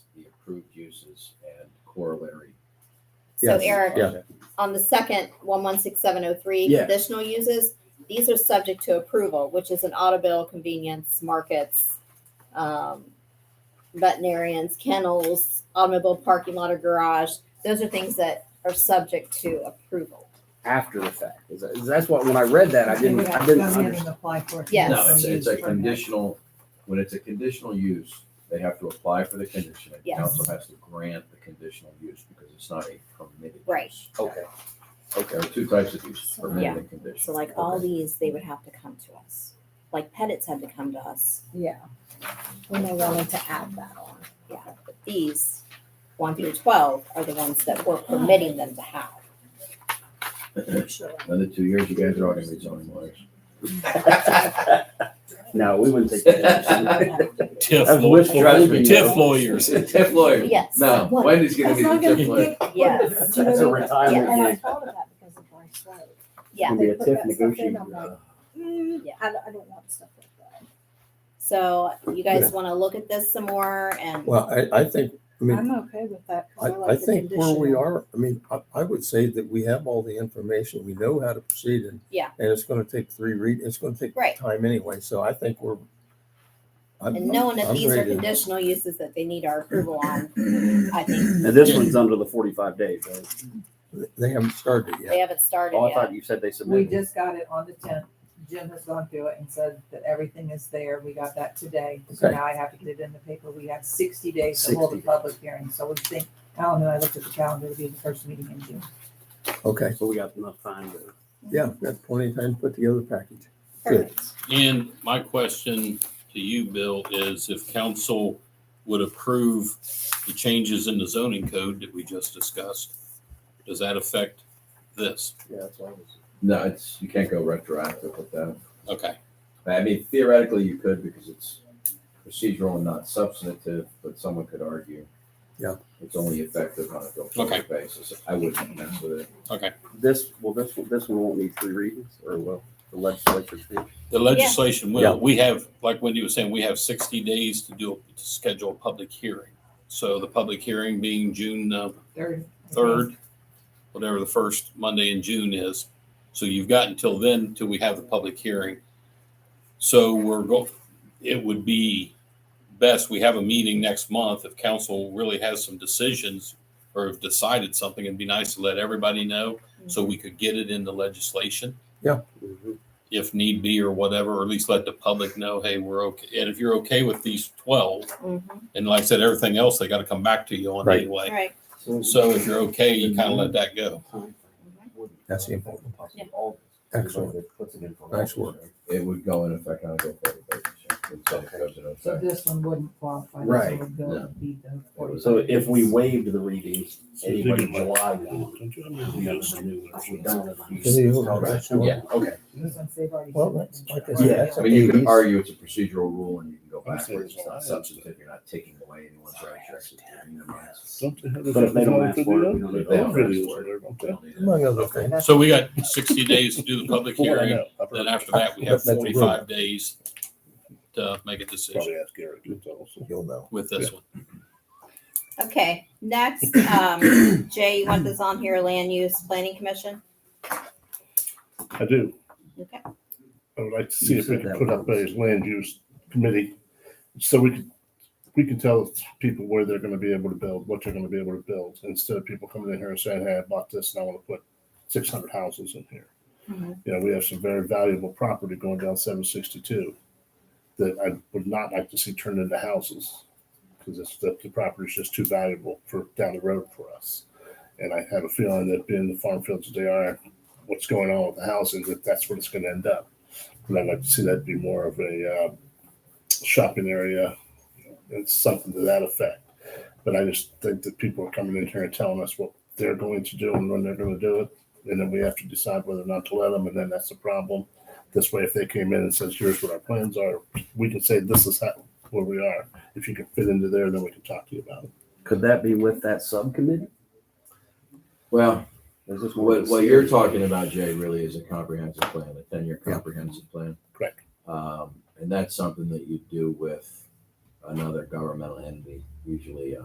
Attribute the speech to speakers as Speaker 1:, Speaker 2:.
Speaker 1: uses and corollary.
Speaker 2: So
Speaker 3: Yes,
Speaker 2: Eric,
Speaker 3: yeah.
Speaker 2: on the second, one one six seven oh three,
Speaker 1: Yes.
Speaker 2: conditional uses, these are subject to approval, which is an auto bill, convenience, markets, um, veterinarians, kennels, automobile parking lot or garage. Those are things that are subject to approval.
Speaker 3: after the fact. Is that- is That's what, when I read that, I didn't, I didn't understand.
Speaker 4: Apply for it.
Speaker 2: Yes.
Speaker 1: No, it's, it's a conditional, when it's a conditional use, they have to apply for the condition. and
Speaker 2: Yes.
Speaker 1: Council has to grant the conditional use because it's not a permitted.
Speaker 2: Right.
Speaker 1: use.
Speaker 3: Okay,
Speaker 1: There are two types of use,
Speaker 2: Yeah.
Speaker 1: permitted and conditional.
Speaker 2: So like all
Speaker 1: Okay.
Speaker 2: these, they would have to come to us, like Pettit's had to come to us.
Speaker 4: Yeah. When they wanted to add that on.
Speaker 2: But these, one through twelve, are the ones that we're permitting them to have.
Speaker 1: Another two years, you guys are all gonna be zoning lawyers.
Speaker 3: no, we wouldn't take that.
Speaker 5: Tiff
Speaker 3: That's
Speaker 5: lawyers.
Speaker 3: wishful thinking.
Speaker 5: Tiff lawyers.
Speaker 1: Tiff lawyer.
Speaker 2: Yes.
Speaker 1: No,
Speaker 4: What?
Speaker 1: Wendy's gonna be the tiff lawyer.
Speaker 2: Yes.
Speaker 3: That's a
Speaker 4: And I
Speaker 3: retirement.
Speaker 4: thought of that because of my slow.
Speaker 2: Yeah.
Speaker 3: Can be a
Speaker 4: They put
Speaker 3: TIF
Speaker 4: that stuff in,
Speaker 3: negotiator.
Speaker 4: I'm like, mm,
Speaker 2: Yeah.
Speaker 4: I don't, I don't want stuff like that.
Speaker 2: So you guys want to look at this some more and
Speaker 6: Well, I, I think, I mean,
Speaker 4: I'm okay with that. 'cause
Speaker 6: I,
Speaker 4: like
Speaker 6: I
Speaker 4: the
Speaker 6: think where we
Speaker 4: conditional.
Speaker 6: are, I mean, I, I would say that we have all the information, we know how to proceed and.
Speaker 2: Yeah.
Speaker 6: And it's gonna take three read, it's gonna take
Speaker 2: Right.
Speaker 6: time anyway, so I think we're. I'm-
Speaker 2: and knowing that
Speaker 6: I'm
Speaker 2: these are
Speaker 6: ready to-
Speaker 2: conditional uses that they need our approval on, I think
Speaker 3: And this one's under the forty-five days, right?
Speaker 6: They haven't started it
Speaker 2: they
Speaker 6: yet.
Speaker 2: haven't started
Speaker 3: Oh, I
Speaker 2: yet.
Speaker 3: thought you said they
Speaker 7: We
Speaker 3: submitted.
Speaker 7: just got it on the tenth. Jim has gone through it and said that everything is there. We got that today. So
Speaker 6: Okay.
Speaker 7: now I have to get it in the paper. We have sixty days to hold a
Speaker 3: 60 days.
Speaker 7: public hearing. So we think, Alan and I looked at the calendar, it'll be the first meeting in June.
Speaker 6: Okay,
Speaker 3: So we got enough time to.
Speaker 6: yeah, we've got plenty of time to put together a package.
Speaker 2: Perfect.
Speaker 5: And my question to you, Bill, is if council would approve the changes in the zoning code that we just discussed, does that affect this?
Speaker 3: Yeah, that's what I was.
Speaker 1: No, it's, you can't go retroactive with that.
Speaker 5: Okay,
Speaker 1: I mean, theoretically, you could because it's procedural and not substantive, but someone could argue.
Speaker 6: Yeah.
Speaker 1: It's only effective on a go-forward basis. I wouldn't mess with it.
Speaker 3: This, well, this, one- this one won't need three readings, or will the legislature? do?
Speaker 5: the legislation
Speaker 6: Yeah.
Speaker 5: will, we have, like Wendy was saying, we have sixty days to do, to schedule a public hearing. So the public hearing being June uh,
Speaker 7: Third.
Speaker 5: third, whatever the first Monday in June is. So you've got until then till we have the public hearing. So we're go, it would be best, we have a meeting next month if council really has some decisions or have decided something, it'd be nice to let everybody know so we could get it into legislation
Speaker 3: Mhm.
Speaker 5: if need be or whatever, or at least let the public know, hey, we're okay. And if you're okay with these twelve,
Speaker 2: Mhm.
Speaker 5: and like I said, everything else, they gotta come back to you on
Speaker 3: Right.
Speaker 5: anyway.
Speaker 2: Right.
Speaker 5: So if you're okay, you kind of let that go.
Speaker 6: That's the important part.
Speaker 2: Yeah.
Speaker 6: Excellent. Nice work.
Speaker 1: It would go in effect on a go-forward basis. yeah, until it goes into
Speaker 7: So
Speaker 1: effect.
Speaker 7: this one wouldn't qualify. This
Speaker 3: Right.
Speaker 7: one would go
Speaker 1: No.
Speaker 7: be the
Speaker 1: It was-
Speaker 3: So if we waived the readings, anybody July one. we're done with it.
Speaker 6: Can you hold on?
Speaker 3: Yeah, okay.
Speaker 7: This one's they've already.
Speaker 6: Well, that's- like I said,
Speaker 3: Yeah.
Speaker 6: that's
Speaker 1: I mean, you
Speaker 6: okay.
Speaker 1: could argue it's a procedural rule and you can go
Speaker 8: I'm saying
Speaker 1: backwards. It's not
Speaker 8: it's-
Speaker 1: substantive. You're not taking away anyone's rights. You're actually giving them rights.
Speaker 3: But if they don't ask for it, we don't
Speaker 1: But
Speaker 3: need
Speaker 1: if they don't
Speaker 3: to.
Speaker 1: ask for it, we don't need it.
Speaker 6: Among other things.
Speaker 5: So we got sixty days to do the public
Speaker 3: Before I
Speaker 5: hearing, then after that, we have
Speaker 6: That's a rule.
Speaker 5: forty-five days to make a decision
Speaker 8: Probably ask Eric. that's also-
Speaker 6: You'll know.
Speaker 5: with this one.
Speaker 2: Okay. Next, um, Jay, you want this on here? Land use planning commission.
Speaker 8: I do.
Speaker 2: Okay.
Speaker 8: I would like to see
Speaker 3: You
Speaker 8: if we
Speaker 3: said
Speaker 8: could
Speaker 3: that
Speaker 8: put up a
Speaker 3: once.
Speaker 8: land use committee, so we could, we can tell people where they're gonna be able to build, what they're gonna be able to build, instead of people coming in here and saying, hey, I bought this and I wanna put six hundred houses in here.
Speaker 2: Mhm.
Speaker 8: You know, we have some very valuable property going down seven sixty-two that I would not like to see turned into houses, because it's, the, the property's just too valuable for down the road for us. And I have a feeling that being the farm fields that they are, what's going on with the housing, that that's what it's gonna end up. And I'd like to see that be more of a uh, shopping area and something to that effect. But I just think that people are coming in here and telling us what they're going to do and when they're going to do it. And then we have to decide whether or not to let them. And then that's the problem. This way, if they came in and says, here's what our plans are, we can say, this is how, where we are. If you can fit into there, then we can talk to you about it.
Speaker 3: Could that be with that subcommittee?
Speaker 1: Well,
Speaker 3: Is this one?
Speaker 1: What, what you're talking about, Jay, really is a comprehensive plan, a ten-year comprehensive plan.
Speaker 8: Correct.
Speaker 1: Um, and that's something that you do with another governmental entity, usually a